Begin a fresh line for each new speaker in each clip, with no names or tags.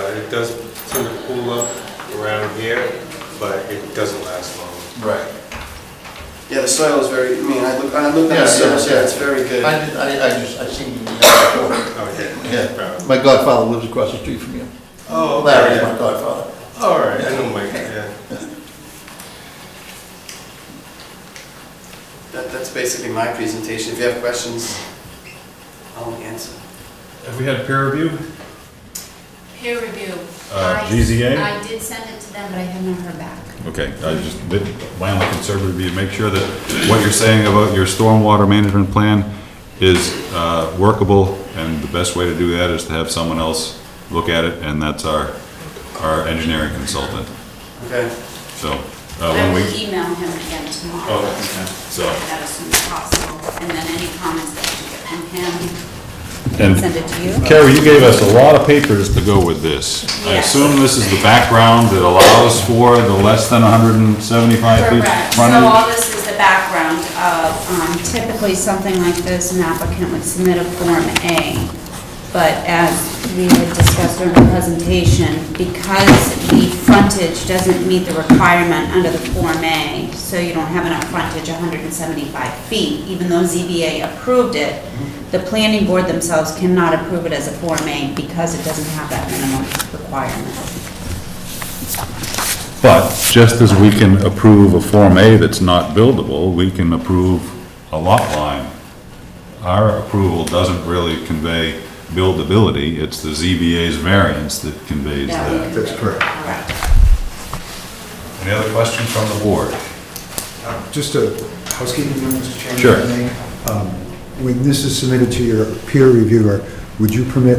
Uh, it does tend to cool up around here, but it doesn't last long.
Right.
Yeah, the soil is very, I mean, I look, I looked at
Yeah,
the soil,
yeah,
yeah,
yeah.
it's very
I,
good.
I, I just, I seen you, yeah,
Oh, yeah.
yeah. My godfather lives across the street from you.
Oh,
Larry's my
okay.
godfather.
All right, I know Mike, yeah.
That, that's basically my presentation. If you have questions, I'll answer.
Have we had peer review?
Peer review.
Uh,
I-
GZA?
I did send it to them, but I have not heard back.
Okay, I just, my only concern would be to make sure that what you're saying about your stormwater management plan is uh, workable, and the best way to do that is to have someone else look at it, and that's our, our engineering consultant.
Okay?
So, uh,
I
when
will
we,
email him again tomorrow.
Oh, okay. So-
That as soon as possible, and then any comments that you get from him, send
and
it to you.
Carrie, you gave us a lot of papers to go with this. I
Yes.
assume this is the background that allows for the less than 175 feet
Correct, so
frontage?
all this is the background of, um, typically something like this, an applicant would submit a Form A, but as we had discussed during the presentation, because the frontage doesn't meet the requirement under the Form A, so you don't have enough frontage, 175 feet, even though ZBA approved it, the planning board themselves cannot approve it as a Form A because it doesn't have that minimum requirement.
But just as we can approve a Form A that's not buildable, we can approve a lot line. Our approval doesn't really convey buildability, it's the ZBA's variance that conveys
Yeah, we
that.
That's correct.
Correct.
Any other questions from the board?
Just a housekeeping note, Mr. Chairman.
Sure.
if I may. Um, When this is submitted to your peer reviewer, would you permit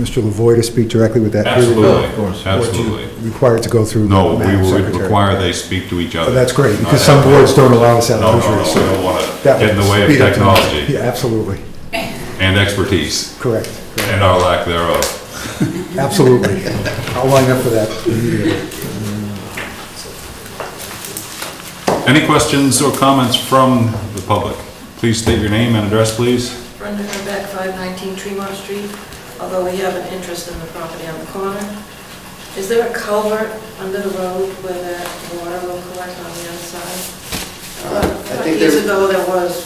Mr. Lavoy to speak directly with that peer reviewer?
Absolutely,
of course.
absolutely.
Required to go through?
No, we
Madam
would
Secretary?
require they speak to each
Oh,
other.
That's great,
Not
because some
have-
boards don't allow us that
No, no,
luxury,
no, we
so...
don't want to
that
get in the
would
way of
speed up things.
technology
Yeah, absolutely,
and expertise
correct, correct.
and our lack thereof.
absolutely. I'll line up for that immediately.
Any questions or comments from the public? Please state your name and address, please.
Brenda Herbeck, 519 Tremont Street, although we have an interest in the property on the corner. Is there a culvert under the road where that water will collect on the other
Uh, I
side?
think
Years
there-
ago, there was.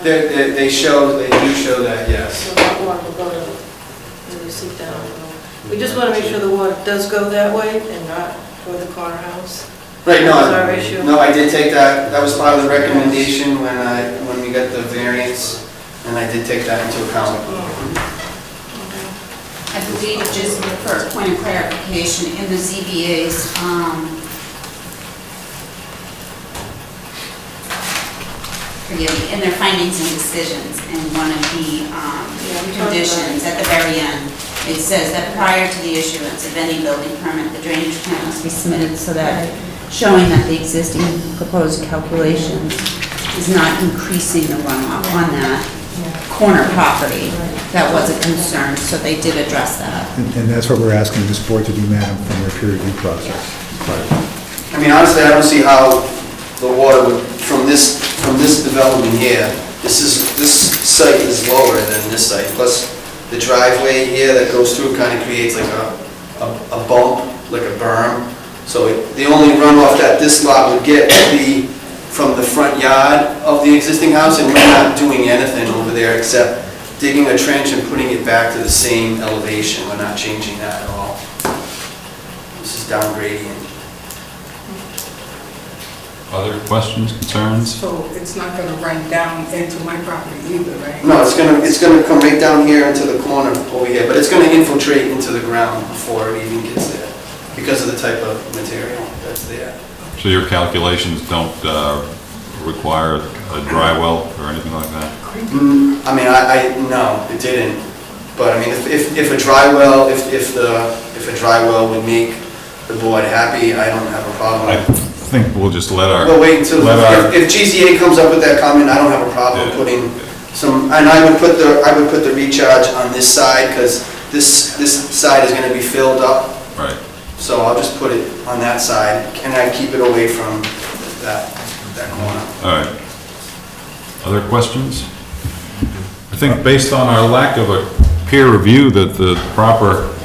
uh,
They, they, they show, they do show that, yes.
So that water will go to, really seep down. We just want to make sure the water does go that way and not toward the corner house.
Right, no,
That's our
I-
issue.
no, I did take that, that was part of the recommendation when I, when we got the variance, and I did take that into account.
I believe, just for a point of clarification, in the ZBA's, um, forgive me, in their findings and decisions, in one of the um,
Yeah, we talked about it.
conditions at the very end, it says that prior to the issuance of any building permit, the drainage plan must be submitted so that, showing that the existing proposed calculations is not increasing the runoff on that corner property. That was a concern, so they did address that.
And and that's what we're asking this board to do, madam, from your peer review process.
I mean, honestly, I don't see how the water would, from this, from this development here, this is, this site is lower than this site, plus the driveway here that goes through kind of creates like a, a a bump, like a berm. So it- the only runoff that this lot would get would be from the front yard of the existing house, and we're not doing anything over there except digging a trench and putting it back to the same elevation. We're not changing that at all. This is down gradient.
Other questions, concerns?
So it's not going to run down into my property either, right?
No, it's gonna, it's gonna come right down here into the corner over here, but it's gonna infiltrate into the ground before it even gets there, because of the type of material that's there.
So your calculations don't uh, require a dry well or anything like that?
Mm, I mean, I, I, no, it didn't, but I mean, if, if if a dry well, if, if the, if a dry well would make the board happy, I don't have a
I
problem.
think we'll just let our,
But wait until,
let our,
if if GZA comes up with that comment, I don't have a problem
Yeah.
putting some, and I would put the, I would put the recharge on this side, because this, this side is gonna be filled up
right.
So I'll just put it on that side, and I keep it away from that, that corner.
All right. Other questions? I think based on our lack of a peer review, that the proper uh,